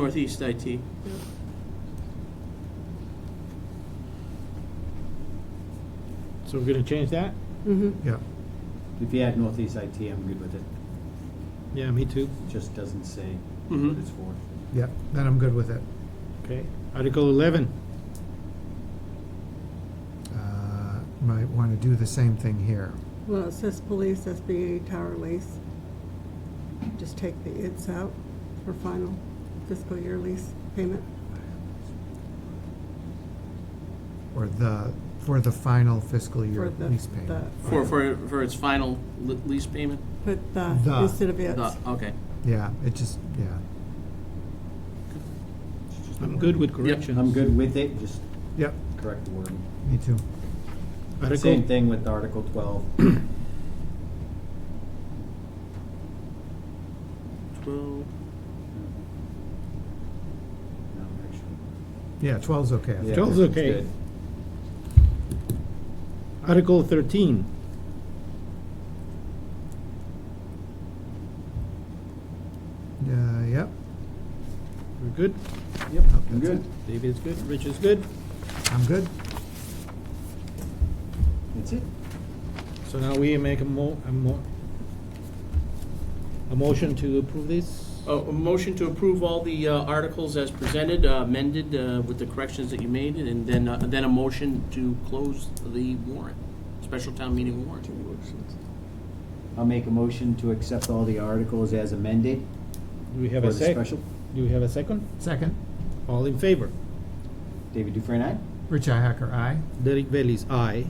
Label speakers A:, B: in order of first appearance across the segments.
A: Northeast IT.
B: So we're gonna change that?
C: Mm-hmm.
D: Yeah,
E: If you add Northeast IT, I'm good with it.
B: Yeah, me too.
E: It just doesn't say
B: Mm-hmm.
E: what
A: Mhm.
E: it's for.
D: yeah, then I'm good with it.
B: Okay. Article eleven.
D: Uh, Might want to do the same thing here.
C: Well, it says police, SBA, tower lease. Just take the it's out for final fiscal year lease payment.
D: Or the, for the final fiscal
C: for
D: year
C: the
D: lease payment.
C: the-
A: For, for, for its final le- lease payment?
C: Put
D: The.
C: the instead of it's.
A: The- Okay.
D: Yeah, it just, yeah,
E: It's just the
B: I'm good
E: wording.
B: with corrections.
E: I'm good with it, just
D: yep,
E: correct the wording.
D: me too.
B: Article,
E: Same thing with Article 12.
A: 12,
E: No, actually.
D: Yeah, 12's okay. I
E: Yeah,
D: think.
B: 12 's
E: it's
B: okay.
E: good.
B: Article thirteen.
D: Yeah, Uh, yep,
B: We're good?
E: Yep,
D: Nope,
E: I'm
D: that's
E: good.
B: Dave is good, Rich is good.
D: I'm good.
E: That's it.
B: So now we make a mo, a mo, a motion to approve this?
E: Oh.
A: Oh, A a motion to approve all the uh, articles as presented, uh, amended uh, with the corrections that you made, and then, uh, then a motion to close the warrant, special town meeting warrant.
E: I'll make a motion to accept all the articles as amended
B: Do we have
E: for
B: a
E: the
B: sec?
E: special.
B: Do we have a second?
D: Second,
B: All in favor?
E: David Dufresne, aye?
D: Rich Hacker, aye.
B: Derek Bailey's aye.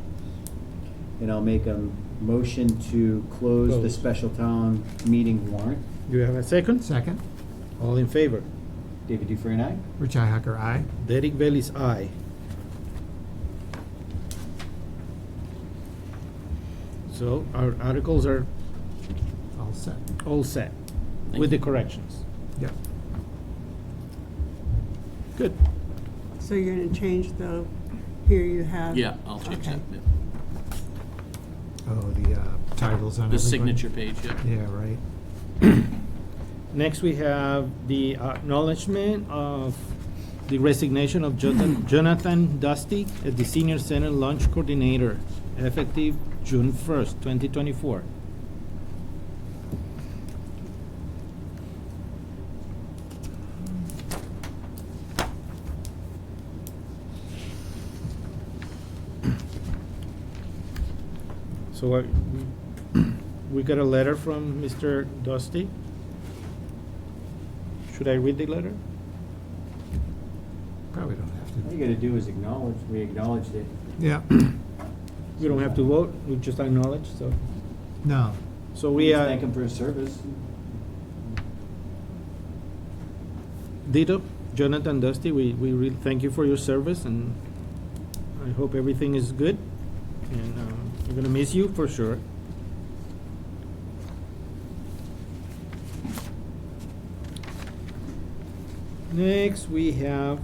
E: And I'll make a motion to close the
B: Close.
E: special town meeting warrant.
B: Do you have a second?
D: Second,
B: All in favor?
E: David Dufresne, aye?
D: Rich Hacker, aye.
B: Derek Bailey's aye. So our articles are
D: All set.
B: all set
A: Thank
B: with the
A: you.
B: corrections.
D: Yep,
B: Good.
C: So you're gonna change the, here you have.
A: Yeah, I'll change that,
C: Okay.
A: yeah.
D: oh, the uh, titles on everybody.
A: The signature page, yeah.
D: Yeah, right.
B: Next, we have the acknowledgement of the resignation of Jonathan- Jonathan Dusty as the Senior Center Lunch Coordinator, effective June 1st, 2024. So uh, we- we got a letter from Mr. Dusty. Should I read the letter?
D: Probably don't have
E: All
D: to.
E: you gotta do is acknowledge, we acknowledged it.
D: Yeah,
B: We don't have to vote, we just acknowledge, so.
D: no,
B: So
E: We
B: we,
E: just thank
B: uh,
E: him for his service.
B: Dito, Jonathan Dusty, we, we really thank you for your service and I hope everything is good. And, um, we're gonna miss you for sure. Next, we have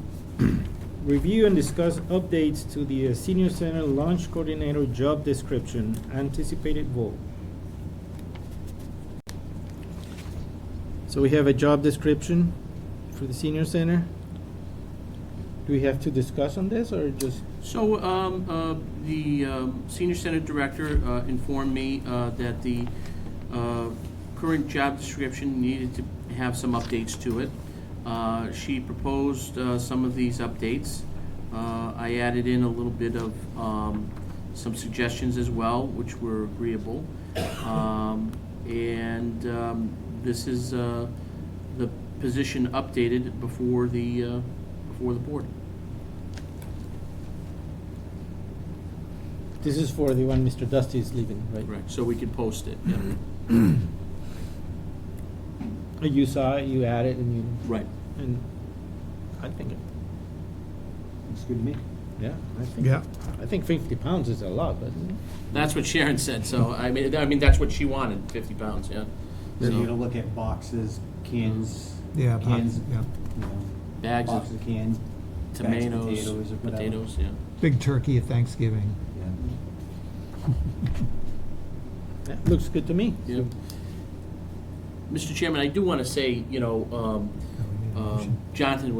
B: review and discuss updates to the uh, senior center launch coordinator job description, anticipated vote. So we have a job description for the senior center. Do we have to discuss on this or just,
A: So, um, uh, the um, senior senate director uh, informed me uh, that the uh, current job description needed to have some updates to it. Uh, She proposed uh, some of these updates. Uh, I added in a little bit of um, some suggestions as well, which were agreeable. Um, And um, this is uh, the position updated before the, uh, before the board.
B: this is for the one Mr. Dusty is leaving, right?
A: Right, so we could post it, yeah.
B: Uh, You saw it, you added and you,
A: Right.
B: and I think, it-
E: Looks good to me.
B: yeah, I think,
D: yeah,
B: I think fifty pounds is a lot, but
A: That's what Sharon said, so, I mean, I mean, that's what she wanted, fifty pounds, yeah.
E: So you gotta
A: So,
E: look at boxes, cans,
D: yeah, Bob,
E: Cans.
D: yeah.
E: you know,
A: bags
E: boxes
A: of
E: of cans. bags of
A: tomatoes,
E: potatoes or whatever.
A: potatoes, yeah.
D: Big turkey at Thanksgiving.
E: Yeah.
B: that looks good to me.
A: Yeah. Mr. Chairman, I do wanna say, you know, um,
D: Oh, we need
A: um, Jonathan